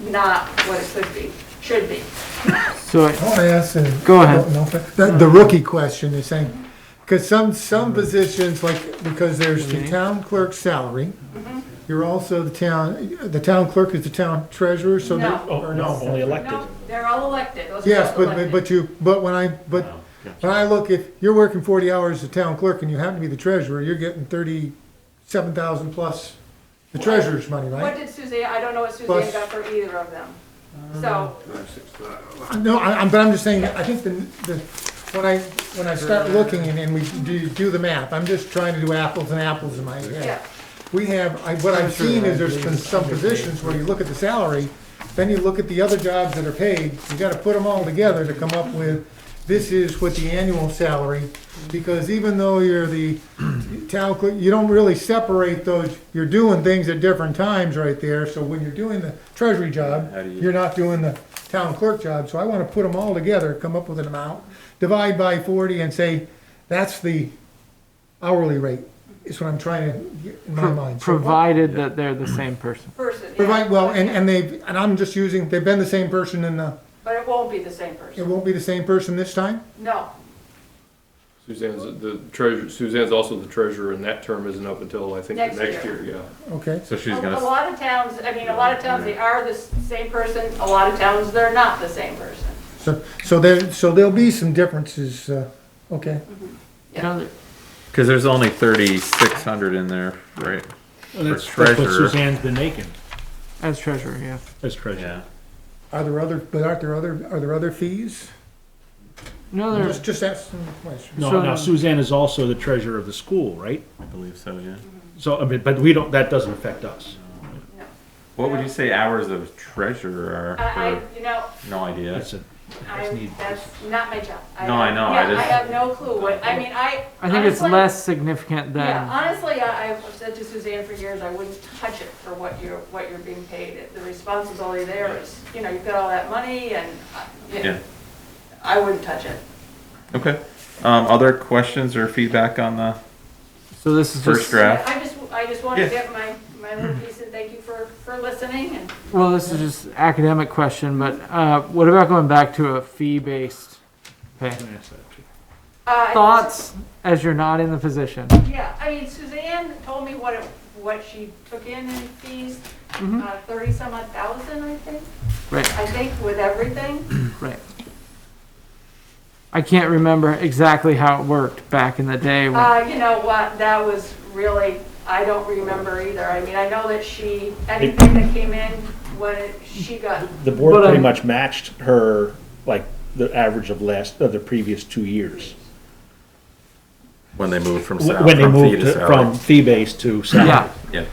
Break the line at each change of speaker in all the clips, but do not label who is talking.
not what it could be, should be.
So, I-
I want to ask, a-
Go ahead.
no, the, the rookie question, you're saying, because some, some positions, like, because there's the town clerk's salary, you're also the town, the town clerk is the town treasurer, so. they-
No.
or no?
Oh, Only elected.
No, they're all elected, those are
Yes,
both
but,
elected.
but you, but when I, but, when I look, if you're working forty hours as a town clerk and you happen to be the treasurer, you're getting thirty-seven thousand plus the treasurer's money,
What
right?
did Suzanne, I don't know what Suzanne
Plus- Uh,
got for either of them. So,
No, I, I'm, but I'm just saying, I think the, the, when I, when I start looking and, and we do, do the math, I'm just trying to do apples and apples in my
yeah,
head. We have, I, what I've seen is there's been some positions where you look at the salary, then you look at the other jobs that are paid, you gotta put them all together to come up with, this is what the annual salary, because even though you're the town clerk, you don't really separate those, you're doing things at different times right there, so when you're doing the treasury job,
How do you-
you're not doing the town clerk job, so I wanna put them all together, come up with an amount, divide by forty and say, that's the hourly rate, is what I'm trying to, get in my mind. So-
provided that they're the same person.
person, yeah.
Provide, well, and, and they, and I'm just using, they've been the same person and, uh,
But it won't be the same
it
person,
won't be the same person this time?
no.
Suzanne's the treasurer, Suzanne's also the treasurer, and that term isn't up until, I think, the
Next
next
year.
year, yeah.
Okay,
So
A
she's
Oh, a
gonna,
lot of towns, I mean, a lot of towns, they are the s- same person, a lot of towns, they're not the same person.
so, so there, so there'll be some differences, uh, okay.
You know,
because there's only thirty-six hundred in there, right?
And that's,
For
that's what
treasurer.
Suzanne's been making
As treasurer, yeah.
as treasurer.
Yeah.
Are there other, but aren't there other, are there other fees?
No, there,
Just, just ask some questions.
No,
So-
now Suzanne is also the treasurer of the school, right?
I believe so, yeah.
So, I mean, but we don't, that doesn't affect us.
What would you say hours of treasurer
I,
are?
I, you know,
for- No idea.
That's it.
I,
need-
that's not my job.
No, I know, I
Yeah, I
just-
have no clue what, I mean, I.
I think it's
honestly-
less significant
Yeah,
than,
honestly, I, I've said to Suzanne for years, I wouldn't touch it for what you're, what you're being paid. The responsibility there is, you know, you've got all that money and, uh, yeah,
Yeah,
I wouldn't touch it.
okay. Um, other questions or feedback on the
so this is
first
just,
draft?
I just, I just want to
Yeah.
get
Hmm.
my, my little piece and thank you for, for listening and,
well, this is just academic question, but, uh, what about going back to a fee-based pay?
Can I ask that too?
uh.
Thoughts as you're not in the position?
Yeah, I mean, Suzanne told me what, it- what she took in in fees,
Mm-hmm.
Mhm.
uh, thirty some odd thousand, I think,
Right,
I think with everything.
right. I can't remember exactly how it worked back in the day when
Uh, you know what, that was really, I don't remember either. I mean, I know that she, anything that came in, what it- she got,
The board
But,
pretty
um,
much matched her, like, the average of last, of the previous two years.
When they moved from
Wh-
sal-
When they
from fee
moved
to
to- from
salary?
fee-based to salary.
Yeah.
Yeah.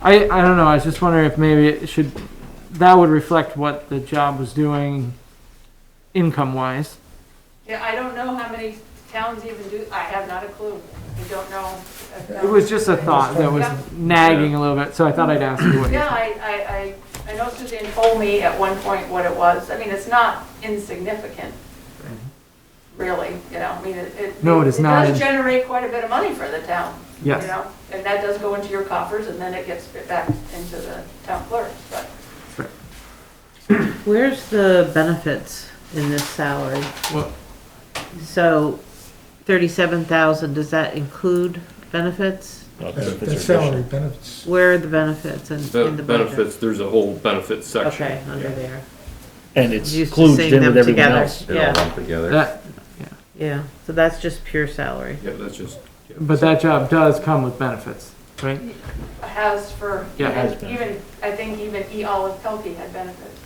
I, I don't know, I was just wondering if maybe it should, that would reflect what the job was doing income wise.
yeah, I don't know how many towns even do, I have not a clue. I don't know. if
It was just a thought that was
Yeah.
nagging a little bit, so I thought I'd ask you what you
Yeah,
thought.
I, I, I, I know Suzanne told me at one point what it was. I mean, it's not insignificant, really, you know, I mean, it. it-
No, it is not
It
in-
does generate quite a bit of money for the town. you
Yes.
know, And that does go into your coffers, and then it gets spit back into the town clerk, but.
Where's the benefits in this salary?
Well-
So thirty-seven thousand, does that include benefits?
Not that
The
if it's
the
additional.
salary benefits.
Where are the benefits in, in
The
the budget?
benefits, there's a whole benefits section.
Okay, under there.
And it's
Used to
included
seeing
in with
them
everyone
together.
else.
It all
Yeah.
lumped together.
That,
Yeah, so that's just pure salary.
Yeah, that's just. yeah.
but that job does come with benefits, right?
Has for,
Yeah,
has
even, even- I think even E. Olive Pelkey had benefits.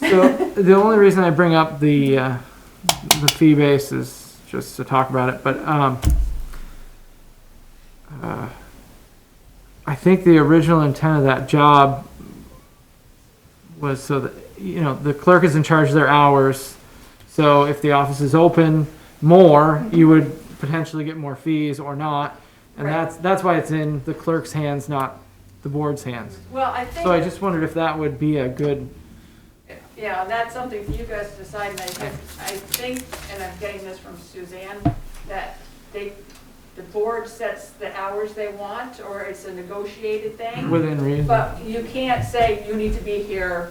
So the only reason I bring up the, uh, the fee base is just to talk about it, but, um, uh, I think the original intent of that job was so that, you know, the clerk is in charge of their hours. So if the office is open more, you would potentially get more fees or not. And
Right.
that's, that's why it's in the clerk's hands, not the board's hands.
Well, I think.
So I just wondered if that would be a good
Yeah, and that's something for you guys to decide, and I think, I think, and I'm getting this from Suzanne, that they, the board sets the hours they want, or it's a negotiated thing,
within reason.
but you can't say you need to be here